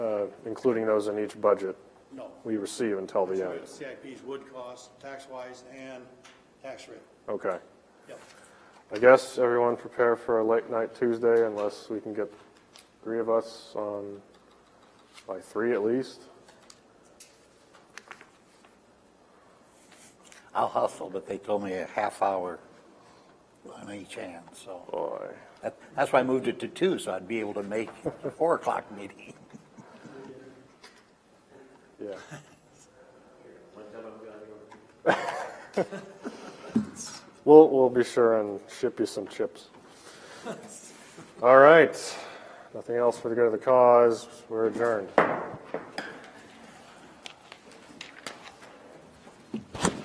uh, including those in each budget No. we receive until the end? CIP's would cost, tax-wise and tax rate. Okay. Yep. I guess everyone prepare for a late night Tuesday unless we can get three of us on, by three at least. I'll hustle, but they told me a half hour on each hand, so. Boy, That, that's why I moved it to two, so I'd be able to make the four o'clock meeting. yeah. We'll, we'll be sure and ship you some chips. All right. Nothing else for the good of the cause. We're adjourned.